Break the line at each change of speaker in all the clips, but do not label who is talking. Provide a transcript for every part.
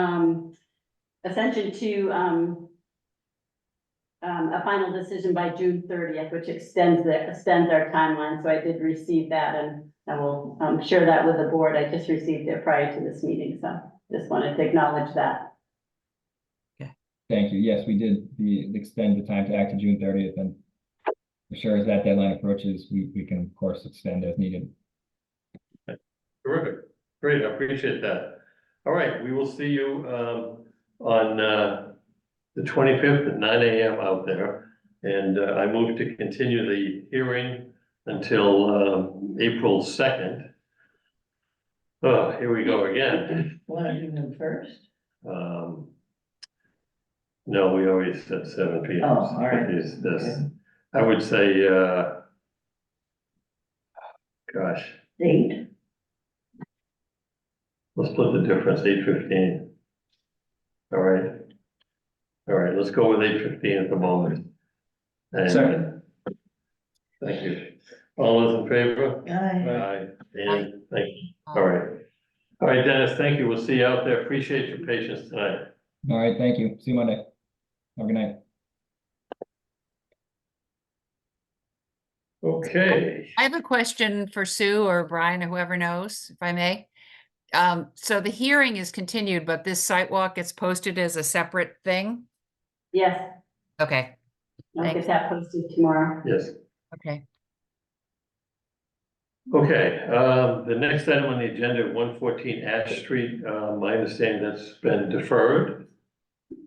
um, ascension to, um, um, a final decision by June thirtieth, which extends the, extends our timeline, so I did receive that and I will, um, share that with the board, I just received it prior to this meeting, so just wanted to acknowledge that.
Thank you. Yes, we did the extend the time to act to June thirtieth and for sure as that deadline approaches, we we can of course extend as needed.
Terrific, great, I appreciate that. All right, we will see you um on uh the twenty-fifth at nine AM out there. And uh, I move to continue the hearing until um April second. Oh, here we go again.
Want to do them first?
Um. No, we always said seven P M.
Oh, all right.
Is this,
Okay.
I would say, uh. Gosh,
Date,
let's split the difference, eight fifteen. All right. All right, let's go with eight fifteen at the moment. And-
Second.
Thank you. All those in favor?
aye.
Aye. And thank you.
Um,
All right. All right, Dennis, thank you. We'll see you out there. Appreciate your patience tonight.
All right, thank you. See you Monday. Have a good night.
Okay.
I have a question for Sue or Brian or whoever knows, if I may. Um, so the hearing is continued, but this site walk gets posted as a separate thing?
Yes,
Okay,
I'll get
Thanks.
that posted tomorrow.
Yes.
okay.
Okay, um, the next item on the agenda, one fourteen Ash Street, um, I understand that's been deferred.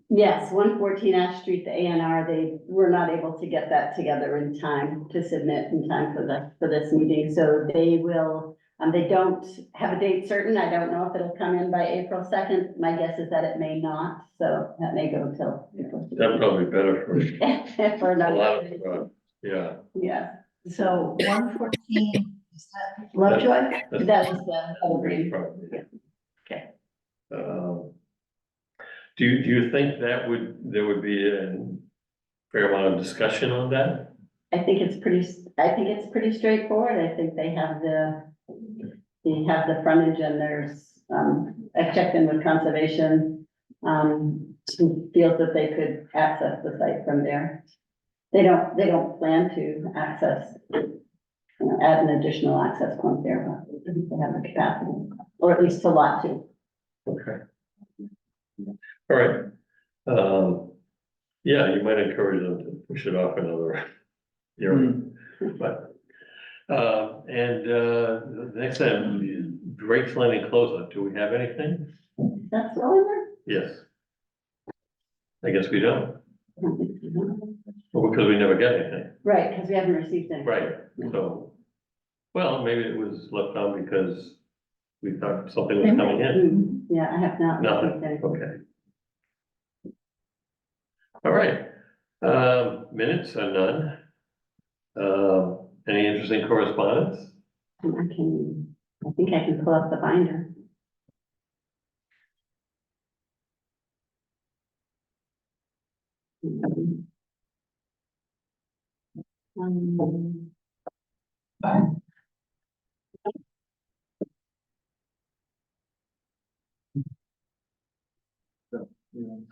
Yes, one fourteen Ash Street, the A and R, they were not able to get that together in time to submit in time for the, for this meeting, so they will. Um, they don't have a date certain, I don't know if it'll come in by April second, my guess is that it may not, so that may go till.
That's
April
probably better for
2nd. For
a lot
another,
of, uh, yeah,
yeah,
So one fourteen, is that Lovejoy?
that was the whole
that's
green.
probably.
Yeah. Okay.
Um, Do you, do you think that would, there would be a fair amount of discussion on that?
I think it's pretty, s- I think it's pretty straightforward, I think they have the, they have the frontage and there's, um, I checked in with conservation. Um, who feels that they could access the site from there. They don't, they don't plan to access, you know, add an additional access point there, but I think they have the capacity, or at least a lot to.
Okay. All right, um, yeah, you might encourage them to push it off another year, but, uh, and, uh, the next time, Drake's Landing closeout, do we have anything?
That's all in there?
Yes. I guess we don't,
I don't think so.
well, because we never get anything,
Right, because we haven't received any.
right, so, well, maybe it was left on because we thought something was coming in.
Mhm. Yeah, I have not received
Nothing,
any.
okay. All right, um, minutes are none. Um, any interesting correspondence?
Um, I can, I think I can pull up the binder. Um,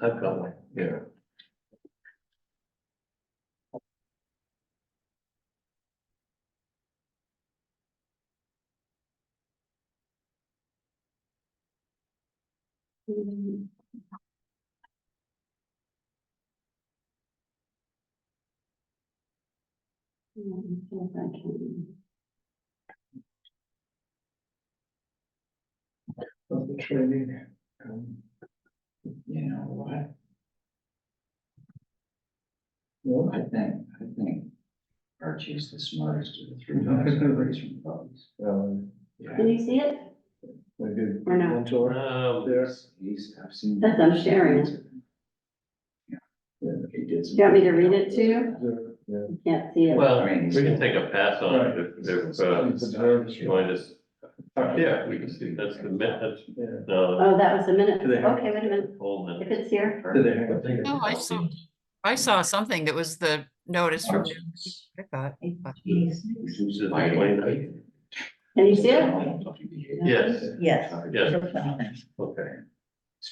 I've got one, yeah.
Let me see if I can-
of the training. um, You know, what? Well, I think, I think Archie's the smartest of the three dogs I've raised from puppies.
Um,
Yeah.
Can you see it?
Like a
Or no?
mentor
Um,
there. He's, I've seen.
That's I'm sharing it.
Yeah. Yeah, he did some-
Do you want me to read it to you?
Yeah.
You Can't see it.
well, we can take a pass on it if, if, uh,
It's observed.
you want us, yeah, we can see, that's the minutes,
Yeah.
no,
Oh, that was a minute.
Do they have-
Okay, wait a minute.
hold
If
minutes.
it's here,
Did they have a thing?
No, I saw, I saw something that was the notice from, Oh, I thought, but-
Jeez.
This is the 29th.
can you see it?
Yes,
Yes.
yes, okay.